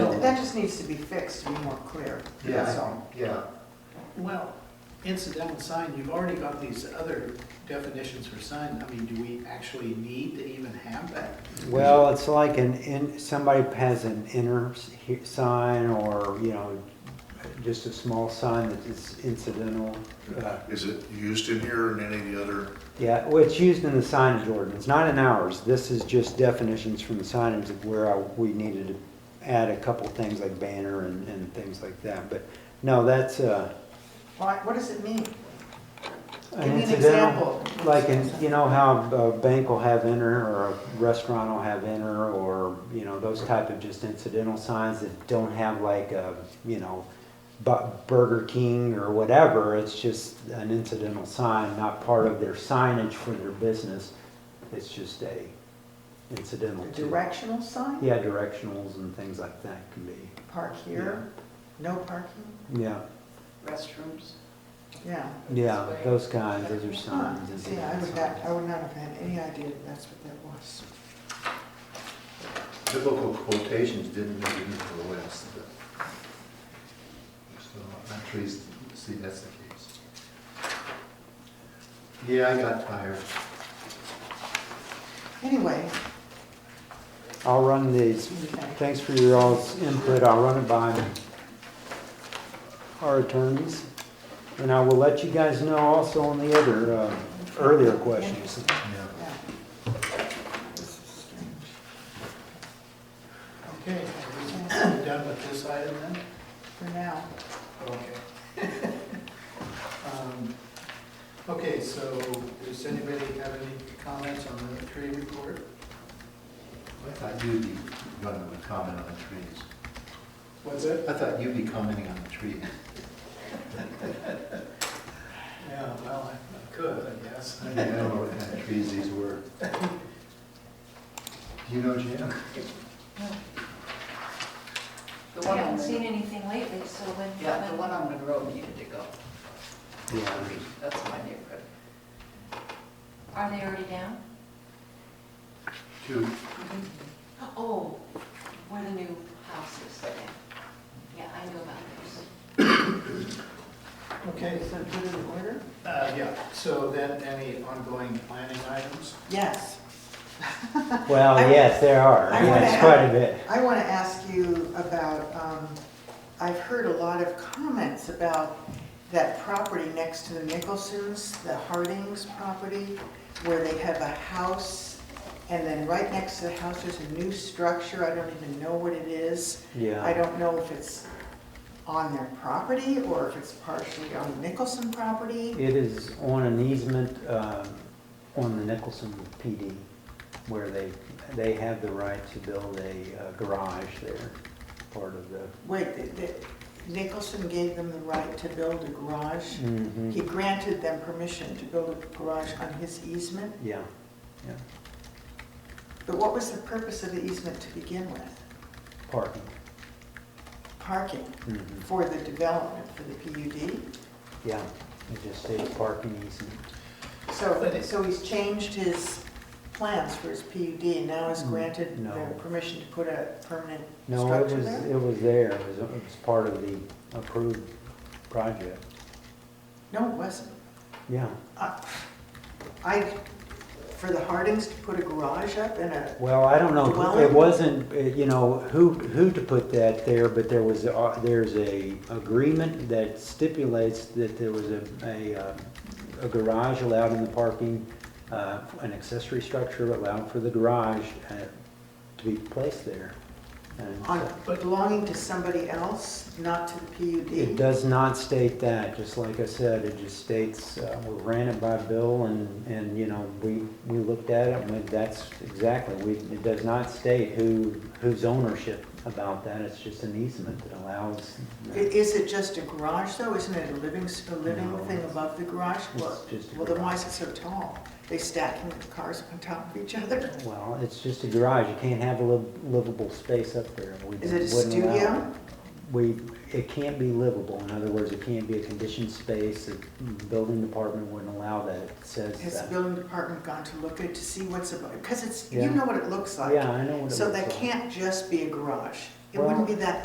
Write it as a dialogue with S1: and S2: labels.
S1: that just needs to be fixed to be more clear,
S2: Yeah.
S1: that's all.
S2: Yeah,
S3: Well, incidental sign, you've already got these other definitions for sign. I mean, do we actually need to even have that?
S4: Well, it's like an, in, somebody has an inner s- he- sign or, you know, just a small sign that is incidental. uh,
S5: Is it used in here in any of the other?
S4: Yeah, well, it's used in the signage ordinance, not in ours. This is just definitions from the signage of where I, we needed to add a couple things like banner and, and things like that. But no, that's, uh,
S1: Why, what does it mean? Give
S4: an
S1: me an
S4: incidental.
S1: example.
S4: Like in, you know how a bank will have enter or a restaurant will have enter or, you know, those type of just incidental signs that don't have like a, you know, Bu- Burger King or whatever, it's just an incidental sign, not part of their signage for their business. It's just a incidental.
S1: A
S4: to-
S1: directional sign?
S4: Yeah, directionals and things like that can be,
S1: Park here, no parking,
S4: yeah,
S6: restrooms.
S1: yeah.
S4: yeah, those kinds, those are
S1: Huh,
S4: signs.
S1: See, I
S4: incidental
S1: would not,
S4: signs.
S1: I would not have had any idea that that's what that was.
S2: biblical quotations didn't make it into the list, but. So I'm pleased to see that's the case. Yeah, I got tired.
S1: Anyway,
S4: I'll run these, thanks for your all's input, I'll run it by our attorneys. And I will let you guys know also on the other, uh, earlier questions.
S2: Yeah.
S1: yeah. This is strange.
S3: Okay, are we done with this item then?
S1: For now,
S3: Okay. Um, Okay, so does anybody have any comments on the tree report?
S2: I thought you'd be running with comment on the trees.
S3: What's it?
S2: I thought you'd be commenting on the trees.
S3: Yeah, well, I could, I guess.
S2: I don't know what kind of trees these were. Do you know, Jim?
S6: The
S7: I
S6: one on,
S7: haven't seen
S6: Monroe-
S7: anything lately, so when,
S6: yeah, the
S7: when-
S6: one on Monroe needed to go.
S4: Yeah.
S6: That's my neighborhood.
S7: are they already down?
S2: Two.
S7: Oh, where the new houses are down. Yeah, I know about those.
S3: Okay,
S1: is that good in order?
S3: uh, yeah, so then any ongoing planning items?
S1: Yes.
S4: Well, yes, there are,
S1: I wanna
S4: yes,
S1: add-
S4: quite a bit.
S1: I want to ask you about, um, I've heard a lot of comments about that property next to the Nicholsons, the Hardings property, where they have a house, and then right next to the house, there's a new structure, I don't even know what it is. I
S4: Yeah,
S1: don't know if it's on their property, or if it's partially on the Nicholson property.
S4: it is on an easement, um, on the Nicholson PD, where they, they have the right to build a uh, garage there, part of the.
S1: Wait, th- th- Nicholson gave them the right to build a garage?
S4: Mhm.
S1: He granted them permission to build a garage on his easement,
S4: Yeah, yeah,
S1: but what was the purpose of the easement to begin with?
S4: parking.
S1: Parking
S4: Mhm.
S1: for the development, for the PUD?
S4: Yeah, it just states parking easement.
S1: So, so he's changed his plans for his PUD and now has granted
S4: Mm, No.
S1: them permission to put a permanent
S4: No, it
S1: structure
S4: was,
S1: there?
S4: it was there, it was, it was part of the approved project.
S1: No, it wasn't.
S4: Yeah,
S1: I- I, for the Hardings to put a garage up and a,
S4: well, I don't know, it
S1: Dwelling?
S4: wasn't, uh, you know, who, who to put that there, but there was, uh, there's a agreement that stipulates that there was a, a, uh, a garage allowed in the parking, uh, an accessory structure allowed for the garage uh, to be placed there. And
S1: on,
S4: so-
S1: belonging to somebody else, not to the PUD?
S4: It does not state that, just like I said, it just states, uh, we ran it by Bill and, and, you know, we, we looked at it and we- that's exactly, we, it does not state who, whose ownership about that, it's just an easement that allows.
S1: I- Is it just a garage though? Isn't it a living, s- a living
S4: No,
S1: thing
S4: it's-
S1: above the garage? Well,
S4: It's just a
S1: well, then why
S4: garage.
S1: is it so tall? They stacking the cars up on top of each other?
S4: Well, it's just a garage, you can't have a liv- livable space up there. We
S1: Is it a
S4: wouldn't allow
S1: studio?
S4: it. We, it can't be livable, in other words, it can't be a conditioned space, the building department wouldn't allow that, it says that.
S1: Has the building department gone to look at it to see what's above? Because it's, you
S4: Yeah.
S1: know what it looks like.
S4: Yeah, I know what it
S1: So
S4: looks
S1: that
S4: like.
S1: can't just be a garage. It
S4: Well-
S1: wouldn't be that